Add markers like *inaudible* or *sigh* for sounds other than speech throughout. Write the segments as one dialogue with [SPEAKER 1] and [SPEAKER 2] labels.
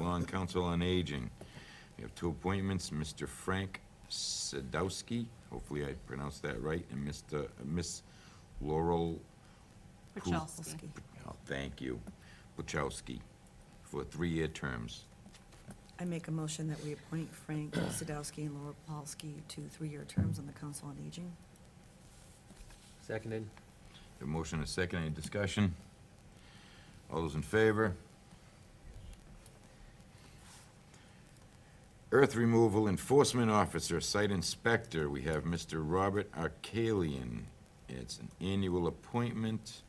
[SPEAKER 1] on Council on Aging. We have two appointments, Mr. Frank Sadowski, hopefully I pronounced that right, and Mr., Miss Laurel
[SPEAKER 2] Puchalski.
[SPEAKER 1] Oh, Thank you. Wachowski, for three-year terms.
[SPEAKER 2] I make a motion that we appoint Frank Sadowski and Laura Paulsky to three-year terms on the Council on Aging.
[SPEAKER 3] Seconded.
[SPEAKER 1] A motion and a second, any discussion? All those in favor? Earth Removal Enforcement Officer, Site Inspector, we have Mr. Robert Arcalian. It's an annual appointment.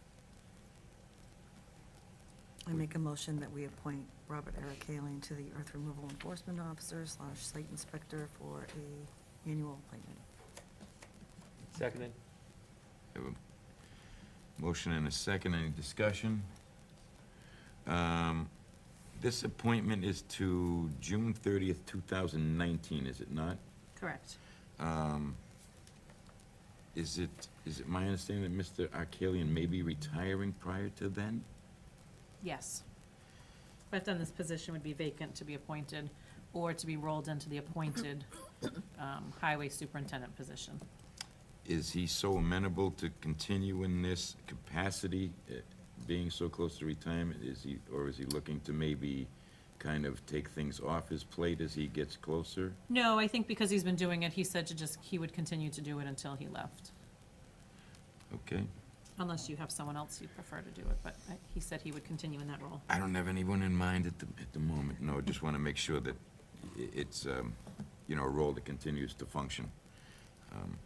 [SPEAKER 2] I make a motion that we appoint Robert Eric Kaling to the Earth Removal Enforcement Officer slash Site Inspector for a annual appointment.
[SPEAKER 3] Seconded.
[SPEAKER 1] We have a Motion and a second, any discussion? Um, This appointment is to June thirtieth, two thousand nineteen, is it not?
[SPEAKER 4] Correct.
[SPEAKER 1] Um, Is it, is it my understanding that Mr. Arkalian may be retiring prior to then?
[SPEAKER 4] Yes. But then this position would be vacant to be appointed or to be rolled into the appointed *coughs* um, highway superintendent position.
[SPEAKER 1] Is he so amenable to continue in this capacity, eh, being so close to retirement? Is he, or is he looking to maybe kind of take things off his plate as he gets closer?
[SPEAKER 4] No, I think because he's been doing it, he said to just, he would continue to do it until he left.
[SPEAKER 1] Okay.
[SPEAKER 4] Unless you have someone else you'd prefer to do it, but uh, he said he would continue in that role.
[SPEAKER 1] I don't have anyone in mind at the, at the moment. No, I just want to make sure that i- it's, um, you know, a role that continues to function. Um,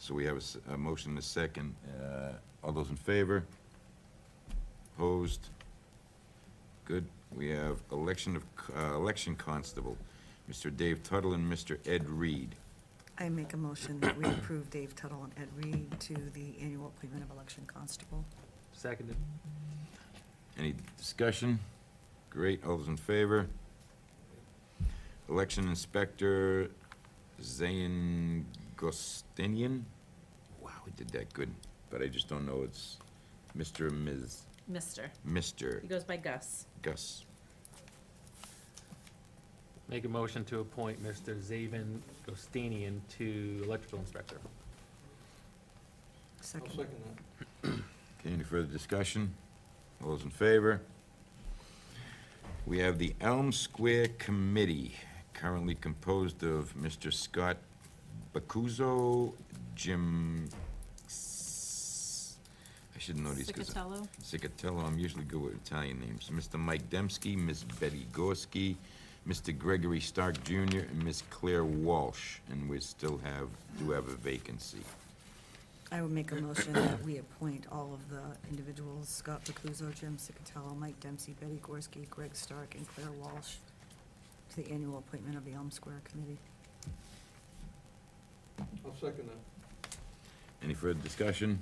[SPEAKER 1] So we have a, s- a motion and a second. Uh, All those in favor? Opposed? Good. We have election of, c- uh, election constable, Mr. Dave Tuttle and Mr. Ed Reed.
[SPEAKER 2] I make a motion that we approve Dave Tuttle and Ed Reed to the annual appointment of election constable.
[SPEAKER 3] Seconded.
[SPEAKER 1] Any discussion? Great, all those in favor? Election Inspector Zayn Gostinian? Wow, I did that good, but I just don't know, it's Mr. or Ms.,
[SPEAKER 4] Mister,
[SPEAKER 1] Mr.
[SPEAKER 4] he goes by Gus.
[SPEAKER 1] Gus.
[SPEAKER 3] Make a motion to appoint Mr. Zaven Gostanian to electrical inspector.
[SPEAKER 2] Second.
[SPEAKER 1] Okay, any further discussion? All those in favor? We have the Elm Square Committee, currently composed of Mr. Scott Bacuzzo, Jim, S- I should know these. 'cause-
[SPEAKER 4] Cicatello?
[SPEAKER 1] Cicatello, I'm usually good with Italian names. Mr. Mike Dembski, Miss Betty Gorski, Mr. Gregory Stark Jr., and Miss Claire Walsh, and we still have, do have a vacancy.
[SPEAKER 2] I would make a motion that we appoint all of the individuals, Scott Bakuzo, Jim Sicatello, Mike Dempsey, Betty Gorski, Greg Stark, and Claire Walsh, to the annual appointment of the Elm Square Committee.
[SPEAKER 5] I'll second that.
[SPEAKER 1] Any further discussion?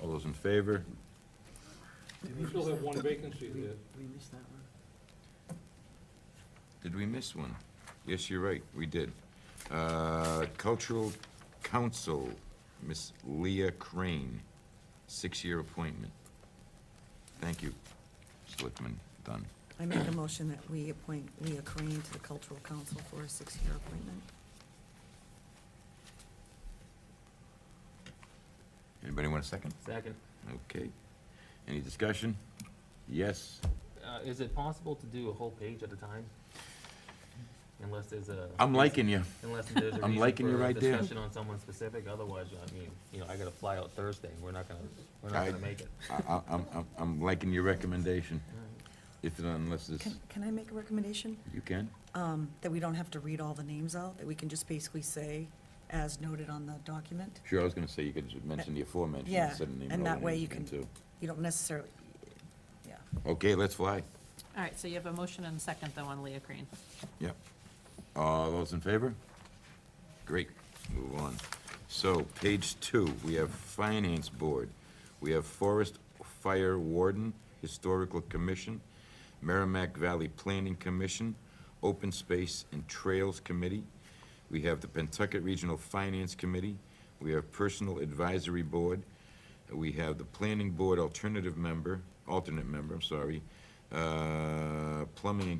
[SPEAKER 1] All those in favor?
[SPEAKER 5] We still have one vacancy there.
[SPEAKER 1] Did we miss one? Yes, you're right, we did. Uh, Cultural Council, Miss Leah Crane, six-year appointment. Thank you, Selectman Dunn.
[SPEAKER 2] I make a motion that we appoint Leah Crane to the Cultural Council for a six-year appointment.
[SPEAKER 1] Anybody want a second?
[SPEAKER 3] Second.
[SPEAKER 1] Okay. Any discussion? Yes?
[SPEAKER 3] Uh, is it possible to do a whole page at a time? Unless there's a.
[SPEAKER 1] I'm liking you.
[SPEAKER 3] Unless there's a
[SPEAKER 1] I'm liking you
[SPEAKER 3] reason for a
[SPEAKER 1] right there.
[SPEAKER 3] discussion on someone specific, otherwise, I mean, you know, I gotta fly out Thursday, we're not gonna, we're not
[SPEAKER 1] I-
[SPEAKER 3] gonna make it.
[SPEAKER 1] I- I- I'm I'm- I'm liking your recommendation,
[SPEAKER 3] All right.
[SPEAKER 1] if, unless this,
[SPEAKER 2] Can, can I make a recommendation?
[SPEAKER 1] you can?
[SPEAKER 2] Um, that we don't have to read all the names out, that we can just basically say, as noted on the document?
[SPEAKER 1] Sure, I was going to say, you could just mention the aforementioned
[SPEAKER 2] Yeah,
[SPEAKER 1] instead of naming
[SPEAKER 2] and
[SPEAKER 1] all the
[SPEAKER 2] that way
[SPEAKER 1] names
[SPEAKER 2] you
[SPEAKER 1] again,
[SPEAKER 2] can-
[SPEAKER 1] too.
[SPEAKER 2] You don't necessarily, yeah.
[SPEAKER 1] Okay, let's fly.
[SPEAKER 4] All right, so you have a motion and a second though on Leah Crane.
[SPEAKER 1] Yep. All those in favor? Great, move on. So, page two, we have Finance Board, we have Forest Fire Warden, Historical Commission, Merrimack Valley Planning Commission, Open Space and Trails Committee, we have the Pentucket Regional Finance Committee, we have Personal Advisory Board, we have the Planning Board Alternative Member, alternate member, I'm sorry, uh, Plumbing and